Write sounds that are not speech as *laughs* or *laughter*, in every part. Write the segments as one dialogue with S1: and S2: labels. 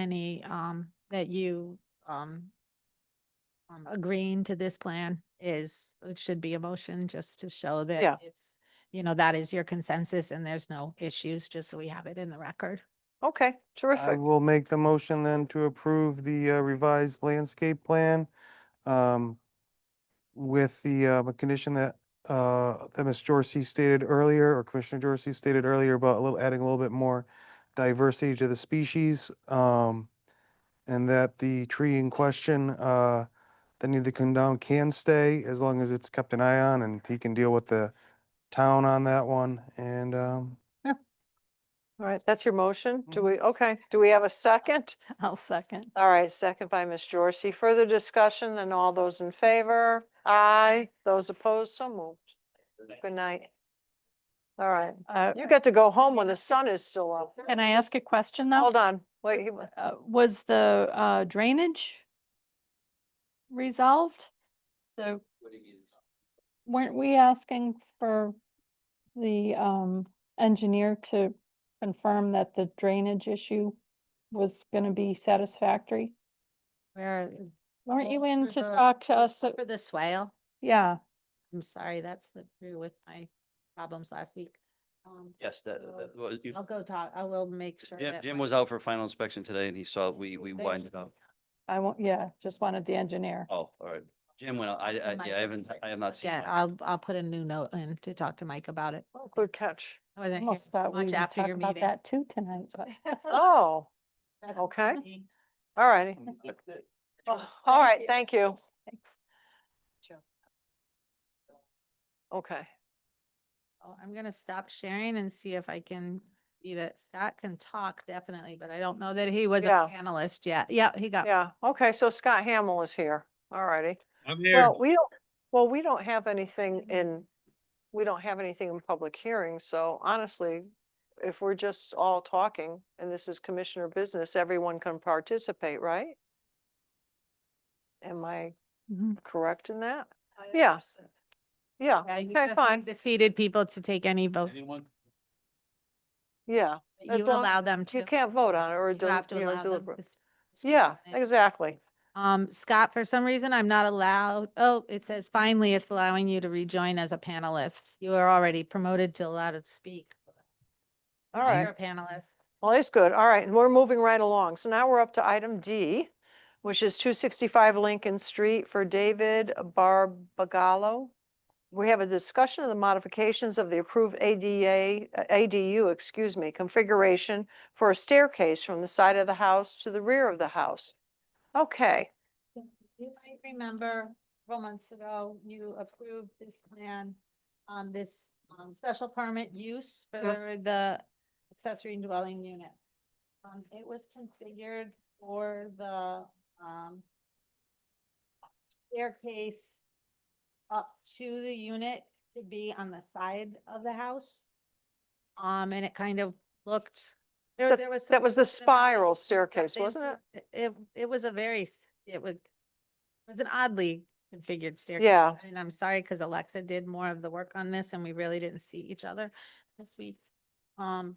S1: any, um, that you, um, um, agreeing to this plan is, it should be a motion just to show
S2: Yeah.
S1: that it's, you know, that is your consensus and there's no issues, just so we have it in the record.
S2: Okay,
S3: I
S2: terrific.
S3: will make the motion then to approve the uh, revised landscape plan um, with the uh, the condition that, uh, that Ms. Jorsey stated earlier, or Commissioner Jorsey stated earlier about a little, adding a little bit more diversity to the species. um, And that the tree in question uh, that need to come down can stay as long as it's kept an eye on and he can deal with the town on that one. And um,
S2: All right, that's your motion? Do
S3: Mhm.
S2: we, okay, do we have a second?
S1: *laughs* I'll second.
S2: All right, second by Ms. Jorsey. Further discussion, then all those in favor? Aye. Those opposed, so moved. Good night. All right,
S4: Uh,
S2: you get to go home when the sun is still up.
S4: Can I ask a question though?
S2: Hold on, wait, he wa-
S4: Uh, Was the uh, drainage resolved? The, weren't we asking for the um, engineer to confirm that the drainage issue was going to be satisfactory?
S1: Where,
S4: Weren't you
S1: Oh,
S4: in
S1: for
S4: to
S1: the-
S4: talk to us? uh,
S1: for the swale,
S4: Yeah,
S1: I'm sorry, that's the, through with my problems last week. Um,
S5: Yes, that,
S1: So,
S5: that was, you-
S1: I'll go talk, I will make sure
S5: Jim,
S1: that.
S5: Jim
S1: my-
S5: was out for final inspection today and he saw we, we
S1: They-
S5: widened it up.
S4: I won't, yeah, just wanted the engineer.
S5: Oh, all right. Jim went out. I, I,
S1: Mike
S5: yeah, I
S1: will
S5: haven't,
S1: put-
S5: I have not seen.
S1: Yeah,
S5: Mike.
S1: I'll, I'll put a new note in to talk to Mike about it.
S2: oh, good catch.
S1: I wasn't here
S4: Almost thought we
S1: much
S4: would
S1: after
S4: talk
S1: your
S4: about
S1: meeting.
S4: that too tonight,
S1: *laughs*
S4: but. *laughs*
S2: Oh,
S1: That's
S2: okay,
S1: me.
S2: all righty. Oh, All right, thank you.
S4: Thanks.
S2: Okay,
S1: Oh, I'm gonna stop sharing and see if I can, see that Scott can talk definitely, but I don't know that he was
S2: Yeah.
S1: a panelist yet. Yeah, he got,
S2: yeah, okay, so Scott Hamill is here. All righty.
S6: *laughs* I'm here.
S2: Well, we don't, well, we don't have anything in, we don't have anything in public hearing, so honestly, if we're just all talking and this is commissioner business, everyone can participate, right? Am I
S1: Mm-hmm.
S2: correct in that? Yeah. Yeah,
S1: yeah, you
S2: Okay,
S1: just
S2: fine.
S1: need the seated people to take any votes.
S5: Anyone?
S2: yeah.
S1: that
S2: as
S1: You
S2: long-
S1: allow them to.
S2: You can't vote on it or,
S1: You
S2: deli-
S1: have to
S2: you
S1: allow
S2: know,
S1: them
S2: deliberate.
S1: to s- speak
S2: Yeah,
S1: on it.
S2: exactly.
S1: Um, Scott, for some reason, I'm not allowed, oh, it says finally it's allowing you to rejoin as a panelist. You are already promoted to allowed to speak.
S2: All
S1: Now
S2: right.
S1: You're a panelist.
S2: Well, that's good. All right, and we're moving right along. So now we're up to item D, which is 265 Lincoln Street for David Barbagallo. We have a discussion of the modifications of the approved ADA, uh, ADU, excuse me, configuration for a staircase from the side of the house to the rear of the house. Okay,
S1: You might remember several months ago, you approved this plan on this um, special permit use for the accessory dwelling unit. Um, It was configured for the um, staircase up to the unit to be on the side of the house. Um, And it kind of looked, there there was. some
S2: that was the
S1: question about it
S2: spiral
S1: stepped
S2: staircase, wasn't it?
S1: into- It, it was a very, s- it was, it was an oddly configured staircase.
S2: Yeah.
S1: And I'm sorry, because Alexa did more of the work on this and we really didn't see each other this week. Um,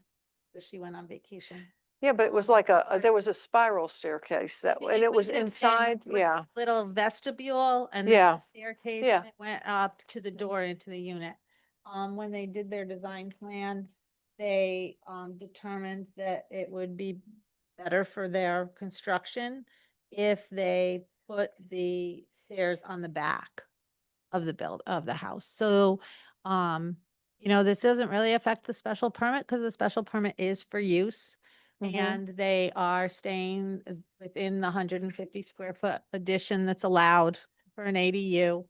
S1: but she went on vacation.
S2: Yeah, but it was like a, a- there was a spiral staircase that,
S1: Yeah,
S2: and it was
S1: would've been-
S2: inside,
S1: it was a
S2: yeah.
S1: Little vestibule and then
S2: Yeah.
S1: a staircase.
S2: Yeah.
S1: and It went up to the door into the unit. Um, when they did their design plan, they, um, determined that it would be better for their construction if they put the stairs on the back of the build, of the house. So, um, you know, this doesn't really affect the special permit because the special permit is for use.
S4: Mm-hmm.
S2: Mhm.
S1: And they are staying uh, within the hundred and fifty square foot addition that's allowed for an ADU.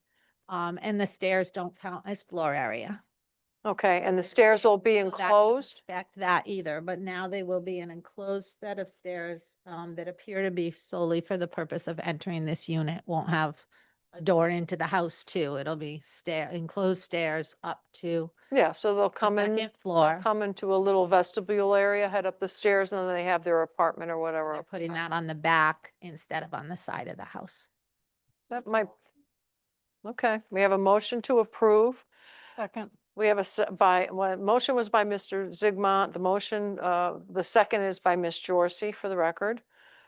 S1: Um, and the stairs don't count as floor area.
S2: Okay, and the stairs will be
S1: So that doesn't
S2: enclosed?
S1: affect that either, but now they will be an enclosed set of stairs, um, that appear to be solely for the purpose of entering this unit. Won't have a door into the house too. It'll be stair, enclosed stairs up to
S2: Yeah, so they'll
S1: the
S2: come in.
S1: second floor.
S2: come into a little vestibule area, head up the stairs, and then they have their apartment or
S1: They're
S2: whatever.
S1: putting that on the back instead of on the side of the house.
S2: That might, okay, we have a motion to approve.
S4: Second.
S2: We have a, se- by, well, motion was by Mr. Zigmont, the motion, uh, the second is by Ms. Jorsey for the record.